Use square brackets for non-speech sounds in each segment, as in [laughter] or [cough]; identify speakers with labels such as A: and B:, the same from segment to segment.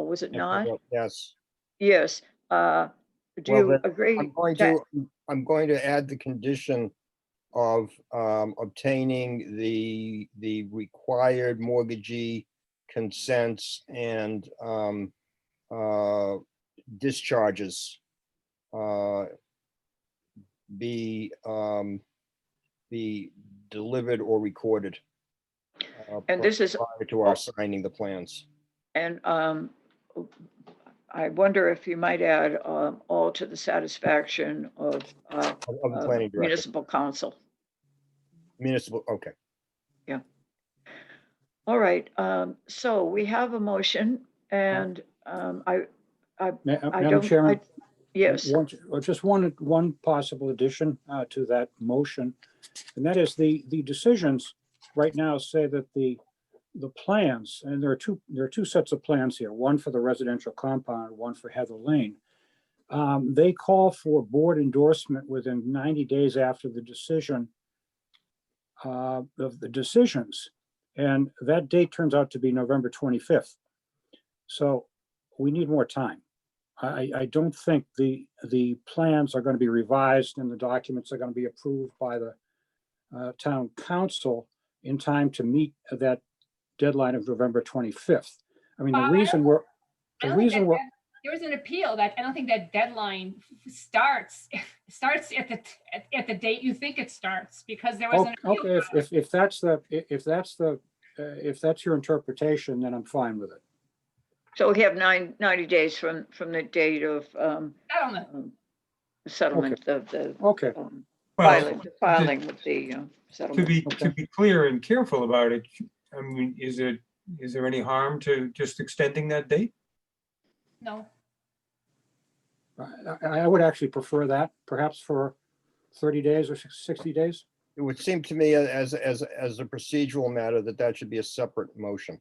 A: Oh, was it
B: Yes, I
A: not?
B: will. Yes,
A: Yes. uh, Do
B: Well,
A: you
B: then,
A: agree?
B: I'm going
A: that-
B: to, I'm going to add the condition of um, obtaining the, the required mortgagee consents and um, uh, discharges. uh, Be, um, be delivered or recorded. uh,
A: And this is,
B: Prior to our signing the plans.
A: and um, I wonder if you might add um, all to the satisfaction of uh,
B: of- of the
A: uh,
B: planning director,
A: municipal council.
B: municipal, okay.
A: All right, um, so we have a motion and um, I,
C: Ma-
A: I
C: Madam
A: don't. I-
C: Chairman?
A: Yes,
C: one- or Just one, one possible addition uh, to that motion, and that is the, the decisions right now say that the, the plans, and there are two, there are two sets of plans here, one for the residential compound, one for Heather Lane. Um, They call for board endorsement within 90 days after the decision uh, of the decisions, and that date turns out to be November 25th. So we need more time. I, I don't think the, the plans are going to be revised and the documents are going to be approved by the uh, town council in time to meet that deadline of November 25th. I mean,
D: Bob,
C: the
D: I don't
C: reason we're,
D: I
C: the
D: don't think
C: reason
D: that
C: we're,
D: dead- There was an appeal that, I don't think that deadline starts, [laughs] starts at the, at, at the date you think it starts, because there was
C: Oh,
D: an. appeal
C: okay, if, if, if that's the, i- if that's the, uh, if that's your interpretation, then I'm fine with it.
A: so we have nine, 90 days from, from the date of um,
D: settlement.
A: um, settlement of the
C: Okay,
A: um,
E: Well,
A: filing, filing with the um,
E: to
A: settlement.
E: be, to be clear and careful about it, I mean, is it, is there any harm to just extending that date?
D: No,
C: I, I- I would actually prefer that, perhaps for 30 days or 60 days.
B: It would seem to me as, as, as a procedural matter that that should be a separate motion.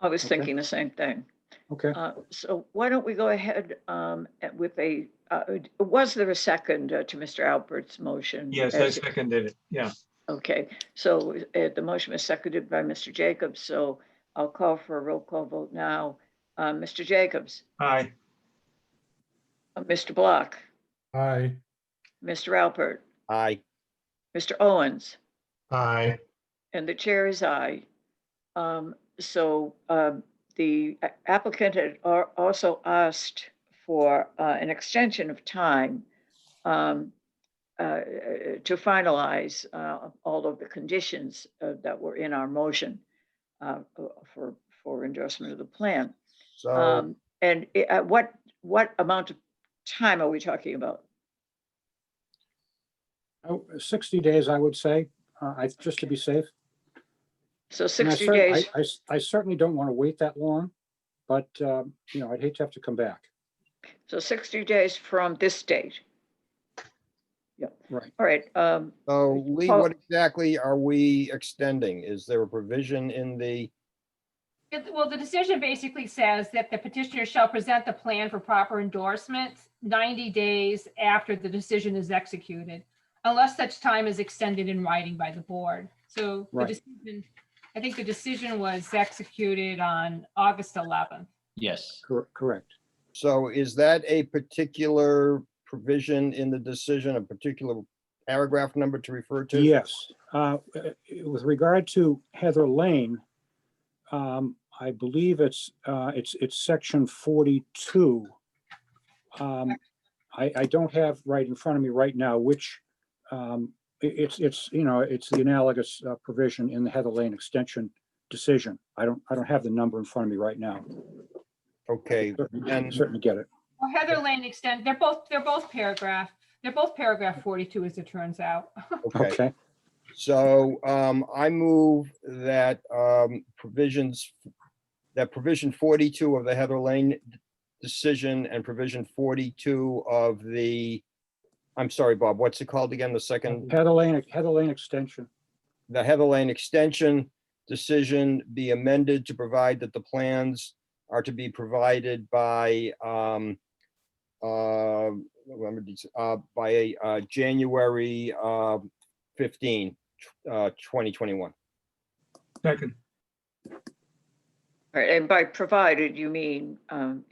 A: I was
C: okay.
A: thinking the same thing.
C: Okay,
A: Uh, So why don't we go ahead um, at- with a, uh, was there a second uh, to Mr. Albert's motion?
E: Yes, I
A: As-
E: seconded it, yeah.
A: Okay, so uh, the motion was seconded by Mr. Jacobs, so I'll call for a roll call vote now. Uh, Mr. Jacobs,
E: Aye,
A: uh, Mr. Block,
F: Aye.
A: Mr. Alpert,
B: Aye.
A: Mr. Owens,
F: Aye.
A: and the chair is aye. Um, So um, the a- applicant had al- also asked for uh, an extension of time um, uh, to finalize uh, all of the conditions uh, that were in our motion uh, for, for endorsement of the plan.
B: So
A: Um, and i- at what, what amount of time are we talking about?
C: Oh, 60 days, I would say, uh, I, just to be safe.
A: So
C: And I
A: sixty
C: cer- I-
A: days,
C: I s- I certainly don't want to wait that long, but, um, you know, I'd hate to have to come back.
A: so sixty days from this date. Yep.
C: Right.
A: All right, um,
B: so Lee,
A: Paul-
B: what exactly are we extending? Is there a provision in the,
D: It- well, the decision basically says that the petitioner shall present the plan for proper endorsement ninety days after the decision is executed, unless such time is extended in writing by the board. So the
C: Right.
D: decision, I think the decision was executed on August eleventh.
G: Yes,
C: Cor- Correct.
B: so is that a particular provision in the decision, a particular paragraph number to refer to?
C: Yes. Uh, uh, With regard to Heather Lane, um, I believe it's, uh, it's, it's section 42. Um, I, I don't have right in front of me right now which, um, i- it's, it's, you know, it's the analogous uh, provision in the Heather Lane extension decision. I don't, I don't have the number in front of me right now.
B: Okay,
C: Certainly
B: and-
C: certainly get it.
D: Well, Heather Lane extend, they're both, they're both paragraph, they're both paragraph 42 as it turns out.
B: okay.
C: Okay.
B: So um, I move that um, provisions, that provision 42 of the Heather Lane decision and provision 42 of the, I'm sorry, Bob, what's it called again? The second,
C: Heather Lane, Heather Lane extension.
B: the Heather Lane extension decision be amended to provide that the plans are to be provided by um, uh, remember these, uh, by uh, January uh, 15, uh, 2021.
E: second.
A: All right, and by provided, you mean, um,